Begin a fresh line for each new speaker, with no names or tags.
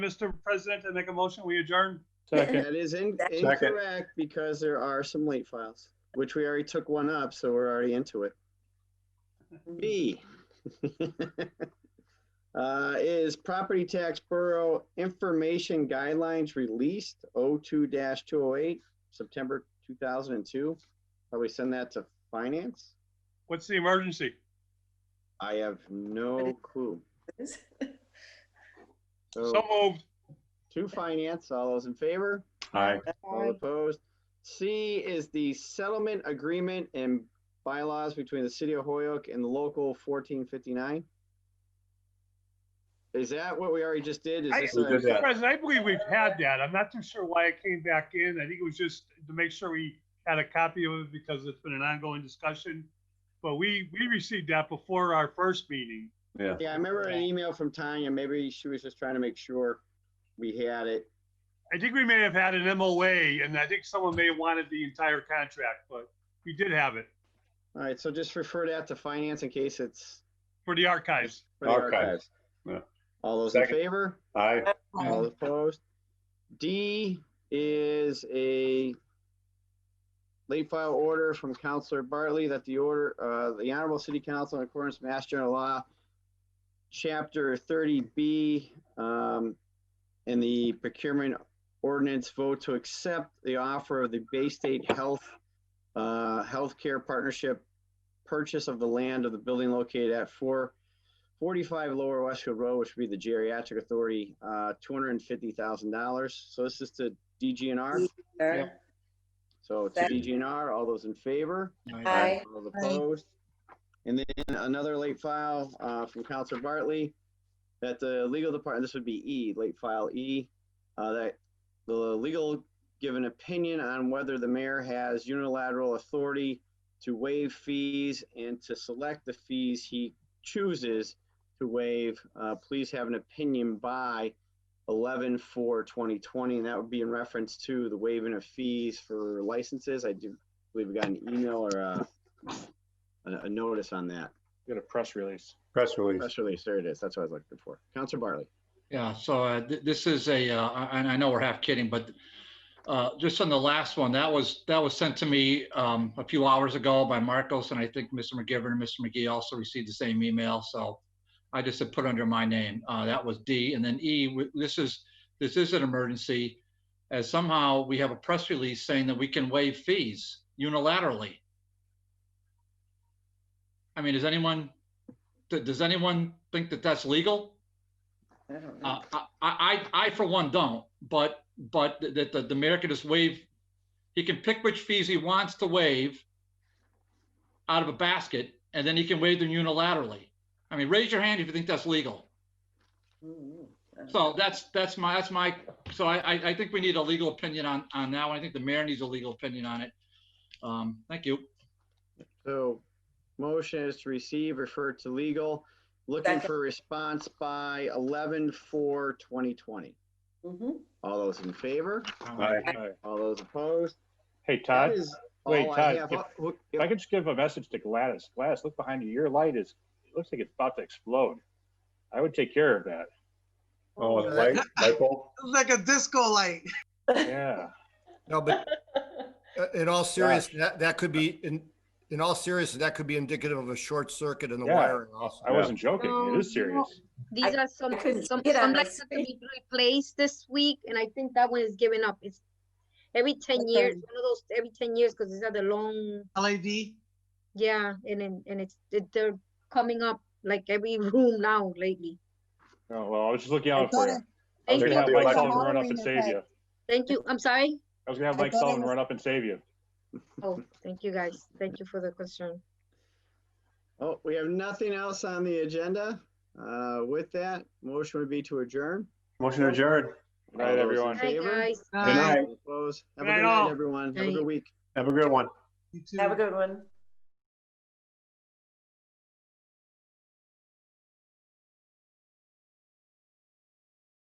Mr. President, I make a motion, we adjourn.
Second.
That is in-
Second.
incorrect because there are some late files, which we already took one up, so we're already into it. B uh, is property tax borough information guidelines released 02-208, September 2002. Probably send that to finance.
What's the emergency?
I have no clue.
So
So
moved.
to finance, all those in favor?
Aye.
All
Aye.
opposed. C is the settlement agreement and bylaws between the city of Hoyoke and the local fourteen fifty-nine. Is that what we already just did? Is
I-
this
We did
a-
that.
Mr. President, I believe we've had that. I'm not too sure why it came back in. I think it was just to make sure we had a copy of it because it's been an ongoing discussion. But we, we received that before our first meeting.
Yeah.
Yeah, I remember an email from Tanya. Maybe she was just trying to make sure we had it.
I think we may have had an MOA and I think someone may have wanted the entire contract, but we did have it
All right, so just refer that to finance in case it's
for the archives.
for the
Archives.
archives.
Yeah.
All those in
Second.
favor?
Aye.
All opposed? D is a late file order from Counselor Bartley that the order, uh, the Honorable City Council in accordance with Mass General Law, Chapter thirty B, um, and the procurement ordinance vote to accept the offer of the Bay State Health, uh, Healthcare Partnership purchase of the land of the building located at four 45 Lower Westfield Road, which would be the Geriatric Authority, uh, $250,000. So this is to DGNR.
Aye.
So to
Second.
DGNR, all those in favor?
Aye.
All opposed? And then another late file uh, from Counselor Bartley that the legal department, this would be E, late file E, uh, that the legal give an opinion on whether the mayor has unilateral authority to waive fees and to select the fees he chooses to waive. Uh, Please have an opinion by 11/4/2020, and that would be in reference to the waiving of fees for licenses. I do believe we got an email or a, a a notice on that.
Got a press release.
Press release.
Press release, there it is. That's what I was looking for. Counselor Bartley.
Yeah, so uh, th- this is a, uh, and I know we're half kidding, but uh, just on the last one, that was, that was sent to me um, a few hours ago by Marcos, and I think Mr. McGivern and Mr. McGee also received the same email, so I just had put under my name. Uh, That was D. And then E, w- this is, this is an emergency, as somehow we have a press release saying that we can waive fees unilaterally. I mean, does anyone, th- does anyone think that that's legal?
I don't
Uh,
know.
I, I, I for one don't, but, but that the, the mayor can just waive, he can pick which fees he wants to waive out of a basket, and then he can waive them unilaterally. I mean, raise your hand if you think that's legal.
Mm, mm.
So that's, that's my, that's my, so I, I, I think we need a legal opinion on, on that one. I think the mayor needs a legal opinion on it. Um, thank you.
So motion is to receive, refer to legal, looking
Second.
for response by 11/4/2020.
Mhm.
All those in favor?
Uh,
Aye.
All those opposed?
Hey,
That
Todd,
is
wait,
all I
Todd,
have.
if-
Uh, who-
if I could just give a message to Gladys. Gladys, look behind you. Your light is, it looks like it's about to explode. I would take care of that.
Oh, and light, light bulb?
like a disco light.
Yeah.
No, but uh, in all seriousness, that, that could be, in, in all seriousness, that could be indicative of a short circuit in the
Yeah.
wiring also.
I wasn't joking.
No,
It is serious.
These are some,
I couldn't
some,
get on
some
my
lights that can be replaced this week, and I think that one is giving up. It's every ten years,
Okay.
one of those every ten years, because these are the long,
LED.
yeah, and and, and it's it, they're coming up like every room now lately.
Oh, well, I was just looking out for you. I was
Thank
gonna
you,
have
you.
Mike
Like
Sullivan
a
run up and save you.
thank you. I'm sorry.
I was gonna have
I
Mike
thought it
Sullivan
was-
run up and save you.
Oh, thank you guys. Thank you for the concern.
Oh, we have nothing else on the agenda. Uh, With that, motion would be to adjourn.
Motion adjourned.
Good night,
All those in
everyone.
Hi
Favor?
guys.
Night.
All opposed? Have a
Night,
good
all.
night, everyone. Have a
Night.
good week.
Have a good one.
You too.
Have a good one.